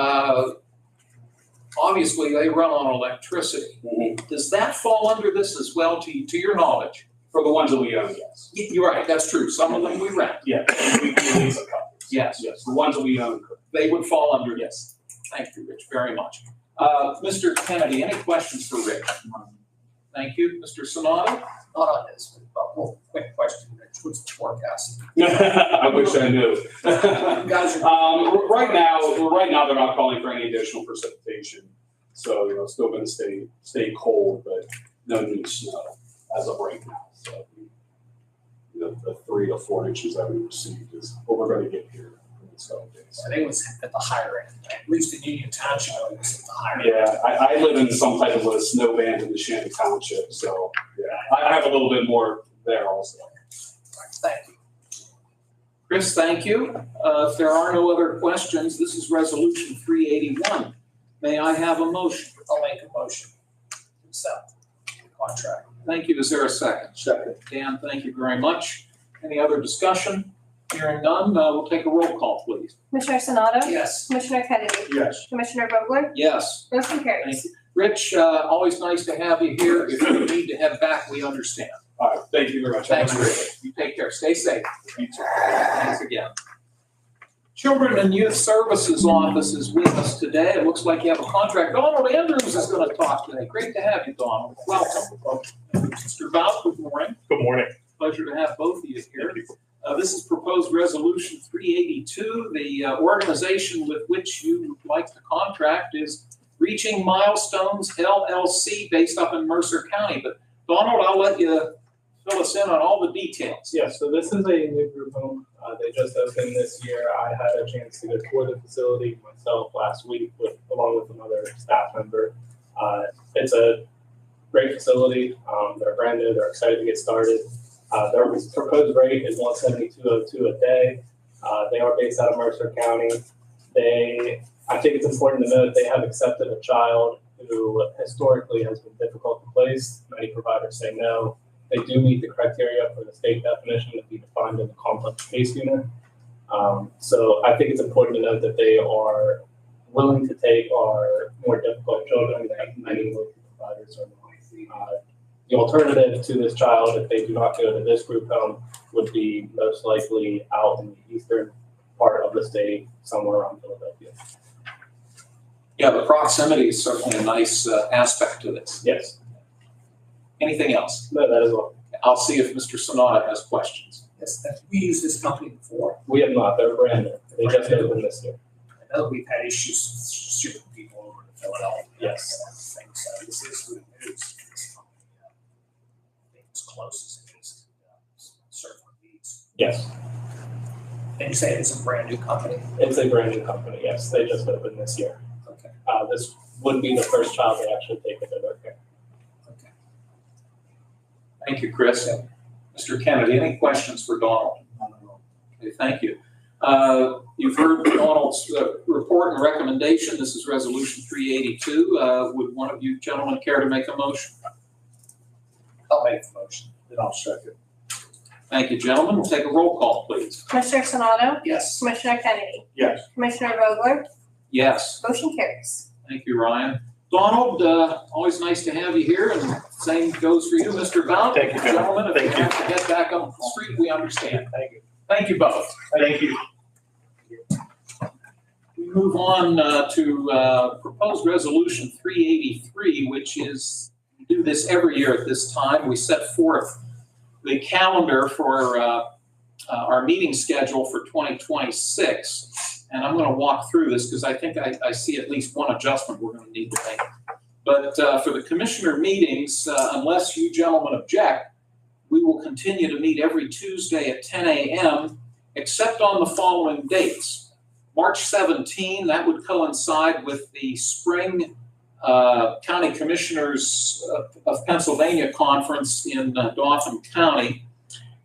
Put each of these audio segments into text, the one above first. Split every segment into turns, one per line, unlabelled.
uh, obviously they run on electricity. Does that fall under this as well, to, to your knowledge?
For the ones that we own, yes.
Y- You're right, that's true. Some of them we rent,
Yeah, we we lease a couple.
yes.
Yes, the ones that we own, correct.
They would fall under this. Thank you, Rich, very much. Uh, Mr. Kennedy, any questions for Rich? Thank you. Mr. Sonata?
not on this, but one quick question, Rich, what's the forecast?
I wish I knew.
You guys are,
Um, r- right now, well, right now, they're not calling for any additional precipitation. So, you know, it's still gonna stay, stay cold, but no new snow as of right now, so. The, the three to four inches that we received is what we're gonna get here in the coming days.
I think it was at the higher end, at least in Union Township, it was at the higher end.
Yeah, I, I live in some type of a snow band in the Shannon Township, so, yeah, I I have a little bit more there also.
Thank you.
Chris, thank you. Uh, If there are no other questions, this is Resolution 381. May I have a motion?
I'll make a motion to accept the contract.
Thank you. Is there a second?
Second.
Dan, thank you very much. Any other discussion? Hearing none, uh, we'll take a roll call, please.
Commissioner Sonato?
Yes.
Commissioner Kennedy?
Yes.
Commissioner Vogler?
Yes.
Motion
Thank
carries.
you. Rich, uh, always nice to have you here. If you need to head back, we understand.
All right, thank you very much.
Thanks, Rich. You take care. Stay safe. You too. Thanks again. Children and Youth Services Office is with us today. It looks like you have a contract. Donald Andrews is going to talk today. Great to have you, Donald. Welcome. Mr. Bowles, good morning.
Good morning.
Pleasure to have both of you here.
Thank you.
Uh, This is proposed resolution 382. The uh, organization with which you would like to contract is Reaching Milestones LLC based up in Mercer County. But Donald, I'll let you fill us in on all the details.
Yeah, so this is a new group home. Uh, they just opened this year. I had a chance to go tour the facility myself last week with, along with another staff member. Uh, it's a great facility. Um, they're brand new. They're excited to get started. Uh, their proposed rate is one seventy-two oh two a day. Uh, they are based out of Mercer County. They, I think it's important to note, they have accepted a child who historically has been difficult to place. Many providers say no they do meet the criteria for the state definition to be defined in the complex case unit. Um, so I think it's important to note that they are willing to take our more difficult children that many local providers are not. Uh, The alternative to this child, if they do not go to this group home, would be most likely out in the eastern part of the state, somewhere around Philadelphia.
Yeah, the proximity is certainly a nice uh, aspect to this.
Yes,
Anything else?
no, that is all.
I'll see if Mr. Sonata has questions.
Yes, that, we used this company before.
We have not, they're brand new. They just opened this year.
I know we've had issues shipping people over to Philadelphia.
Yes.
and everything, So this is good news. for this company. Uh, I think It's close as it is to uh, serve our needs.
Yes.
And you say it's a brand new company?
It's a brand new company, yes. They just opened this year.
Okay.
Uh, this would be the first child they actually take into their care.
Okay.
Thank you, Chris. Mr. Kennedy, any questions for Donald? Okay, thank you. Uh, You've heard Donald's uh, report and recommendation. This is Resolution 382. Uh, Would one of you gentlemen care to make a motion?
I'll make the motion. Then I'll second.
Thank you, gentlemen. We'll take a roll call, please.
Commissioner Sonato?
Yes.
Commissioner Kennedy?
Yes.
Commissioner Vogler?
Yes,
Motion carries.
thank you, Ryan. Donald, uh, always nice to have you here, and same goes for you, Mr. Blount.
Thank you,
Gentlemen,
gentlemen.
if you
Thank you.
have to head back on the street, we understand.
Thank you.
Thank you both.
Thank you.
We move on uh, to uh, proposed resolution 383, which is, we do this every year at this time. We set forth the calendar for uh, uh, our meeting schedule for 2026. And I'm going to walk through this because I think I I see at least one adjustment we're going to need to make. But uh, for the commissioner meetings, uh, unless you gentlemen object, we will continue to meet every Tuesday at 10 a.m., except on the following dates. March 17, that would coincide with the spring uh, County Commissioners of- of Pennsylvania Conference in uh, Dauphin County.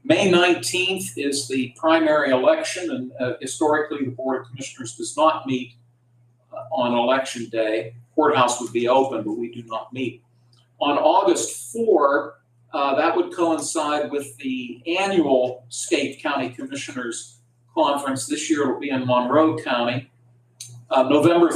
May 19th is the primary election, and uh, historically, the Board of Commissioners does not meet uh, on Election Day. Courthouse would be open, but we do not meet. On August 4, uh, that would coincide with the annual State County Commissioners Conference. This year it'll be in Monroe County. Uh, November